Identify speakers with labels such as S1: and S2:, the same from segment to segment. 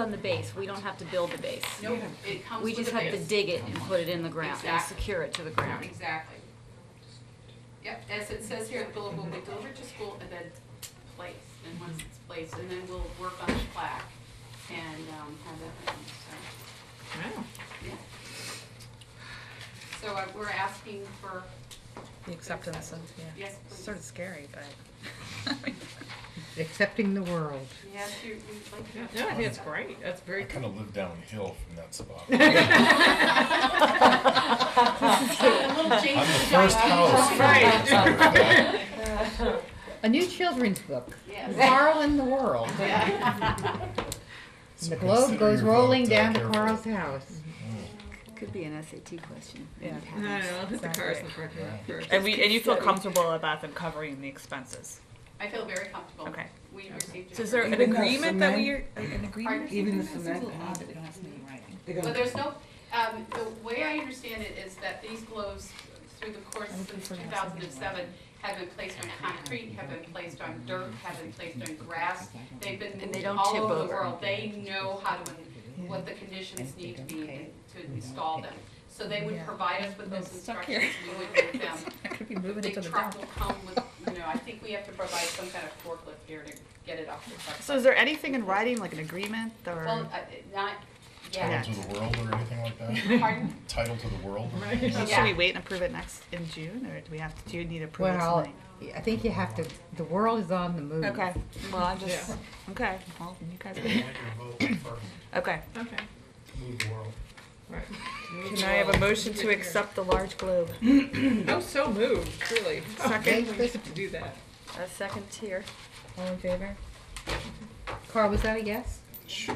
S1: from the base, we don't have to build the base.
S2: No, it comes
S1: We
S2: with
S1: just
S2: the
S1: have to
S2: base.
S1: dig it and put it in the ground and
S2: Exactly.
S1: secure it to the ground.
S2: Exactly. Yep, as it says here, the bill will be delivered to school and then placed, and once it's placed, and then we'll work on the plaque and, um, have that, ready, so,
S3: Wow.
S2: yeah. So uh, we're asking for,
S3: The acceptance of, yeah.
S2: yes,
S3: It's
S2: please.
S3: Sort of scary, but.
S4: accepting the world.
S2: Yes, you, we'd like to.
S3: No, I think it's great. That's very.
S5: kind of live downhill from that spot.
S2: A little change.
S5: I'm the first house.
S3: Right.
S4: A new children's book,
S2: Yes.
S4: Carl in the World.
S5: So
S4: The globe
S5: consider
S4: goes
S5: your vote,
S4: rolling
S5: uh,
S4: down to
S5: careful.
S4: Carl's house.
S1: Could be an SAT question.
S3: No, no, no, the cars in front of it first.
S6: And we, and you feel comfortable about them covering the expenses?
S2: I feel very comfortable.
S6: Okay.
S2: We received.
S6: So is there
S2: it.
S6: an
S7: Even though
S6: agreement that we,
S7: cement-
S6: are- an agreement?
S2: Pardon?
S7: Even the cement pad, they don't have to be in writing. They're gonna-
S2: Well, there's no, um, the way I understand it is that these globes, through the course since two thousand and seven, have been placed on concrete, have been placed on dirt, have been placed on grass. They've been
S1: And they
S2: moved
S1: don't
S2: all
S1: tip
S2: over the
S1: over.
S2: world. They know how to, what the conditions need to be in- to install them. So they would
S3: Yeah.
S2: provide us with those
S3: It's stuck here.
S2: instructions, we would give them.
S3: I could be moving it
S2: Big
S3: to the
S2: truck
S3: top.
S2: will come with, you know, I think we have to provide some kind of forklift here to get it off the truck.
S6: So is there anything in writing, like an agreement
S2: Well,
S6: or?
S2: uh, not
S5: Title
S2: yet.
S5: to the world or anything like that?
S2: Pardon?
S5: Title to the world?
S6: So
S2: yeah.
S6: Should we wait and approve it next, in June, or do we have, to? do you need approval
S4: Well,
S6: tonight?
S4: I think you have to, the world is on the move.
S6: Okay, well, I just,
S3: Yeah.
S6: okay, well, you guys,
S8: Want your vote first,
S6: okay.
S3: Okay.
S8: move the world.
S3: Right.
S6: Can I have a motion to accept the large globe?
S3: Oh, so moved, really. Second, we have to do that.
S1: A second tier.
S3: All in favor?
S4: Carl, was that a yes?
S5: Sure.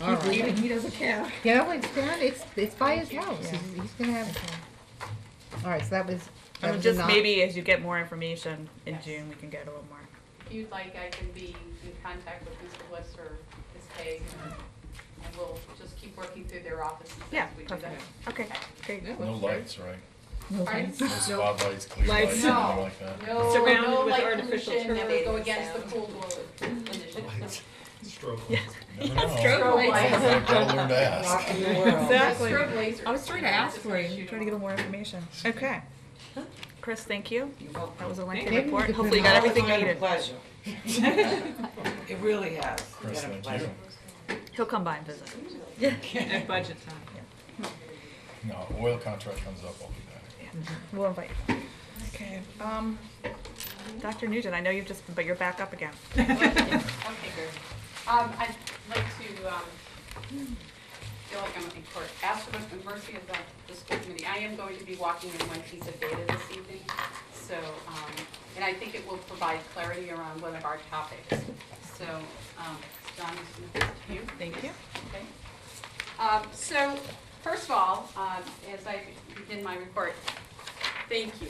S4: All right.
S3: Even he doesn't care.
S4: You know, it's down, it's, it's by his house. He's he's gonna have. All right, so that was, that
S6: And
S4: was a
S6: just
S4: non.
S6: maybe as you get more information in
S2: Yes.
S6: June, we can get a little more.
S2: If you'd like, I can be in contact with Mr. West or Ms. Haig, and we'll just keep working through their offices
S6: Yeah,
S2: as we do that.
S6: perfect, okay, great.
S3: No, that's
S5: No
S3: great.
S5: lights, right?
S2: Pardon?
S5: No spotlights, clear
S3: Lights.
S5: lights,
S2: No.
S5: anything like that?
S2: No,
S3: Surrounded
S2: no
S3: with
S2: light
S3: artificial
S2: pollution, that would go
S3: turbines
S2: against the cool glow initiative.
S8: Stroke.
S5: Never know.
S3: Strobe lights.
S5: Gotta learn to ask.
S7: Rocking the world.
S6: Exactly.
S2: Strobe lasers.
S6: I was trying to ask
S2: Just
S6: for you,
S2: shoot
S6: trying to get more information. Okay. Chris, thank you. That was a lengthy
S4: Maybe we
S6: report.
S4: could
S6: Hopefully you
S4: put
S6: got
S4: it
S6: everything you
S7: It's been a
S6: needed.
S7: pleasure. It really has. It's
S5: Chris,
S7: been a
S5: thank
S7: pleasure.
S5: you.
S6: He'll come by and visit.
S3: At budget time.
S5: No, oil contract comes up, I'll be back.
S6: We'll invite you. Okay, um, Dr. Nugent, I know you've just, but you're back up again.
S2: them. Okay, good. Um, I'd like to, um, feel like I'm in court. Ask for the mercy of the, the school committee. I am going to be walking in one piece of data this evening, so, um, and I think it will provide clarity around one of our topics. So, um, John, this is to you.
S6: Thank you.
S2: Okay. Um, so, first of all, um, as I begin my report, thank you.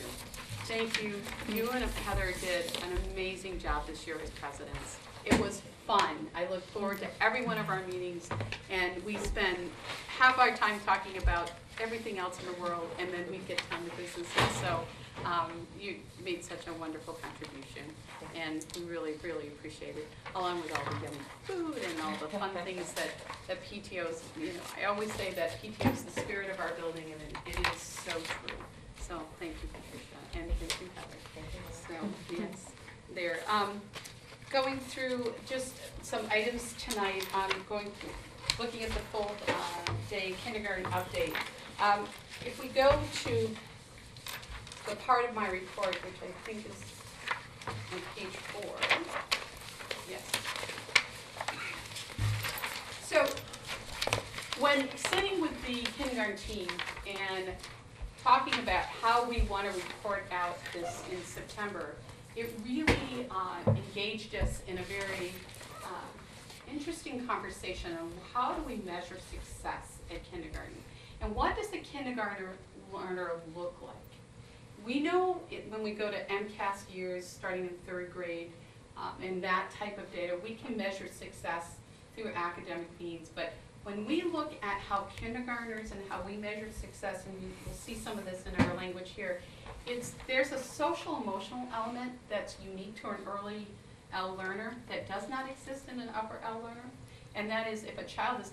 S2: Thank you. You and Heather did an amazing job this year as presidents. It was fun. I look forward to every one of our meetings, and we spend half our time talking about everything else in the world, and then we get down to businesses. So um, you made such a wonderful contribution, and we really, really appreciate it, along with all the yummy food and all the fun things that, that PTOs, you know, I always say that PTO is the spirit of our building, and it- it is so true. So, thank you, Patricia, and thank you, Heather. So, yes, there. Um, going through just some items tonight, um, going, through- looking at the full, uh, day kindergarten update. Um, if we go to the part of my report, which I think is on page four. Yes. So, when sitting with the kindergarten team and talking about how we want to report out this in September, it really uh, engaged us in a very uh, interesting conversation on how do we measure success at kindergarten? And what does the kindergartner learner look like? We know it, when we go to MCAS years, starting in third grade, um, and that type of data, we can measure success through academic means, but when we look at how kindergartners and how we measure success, and you- you'll see some of this in our language here, it's, there's a social emotional element that's unique to an early L learner that does not exist in an upper L learner. and that is if a child is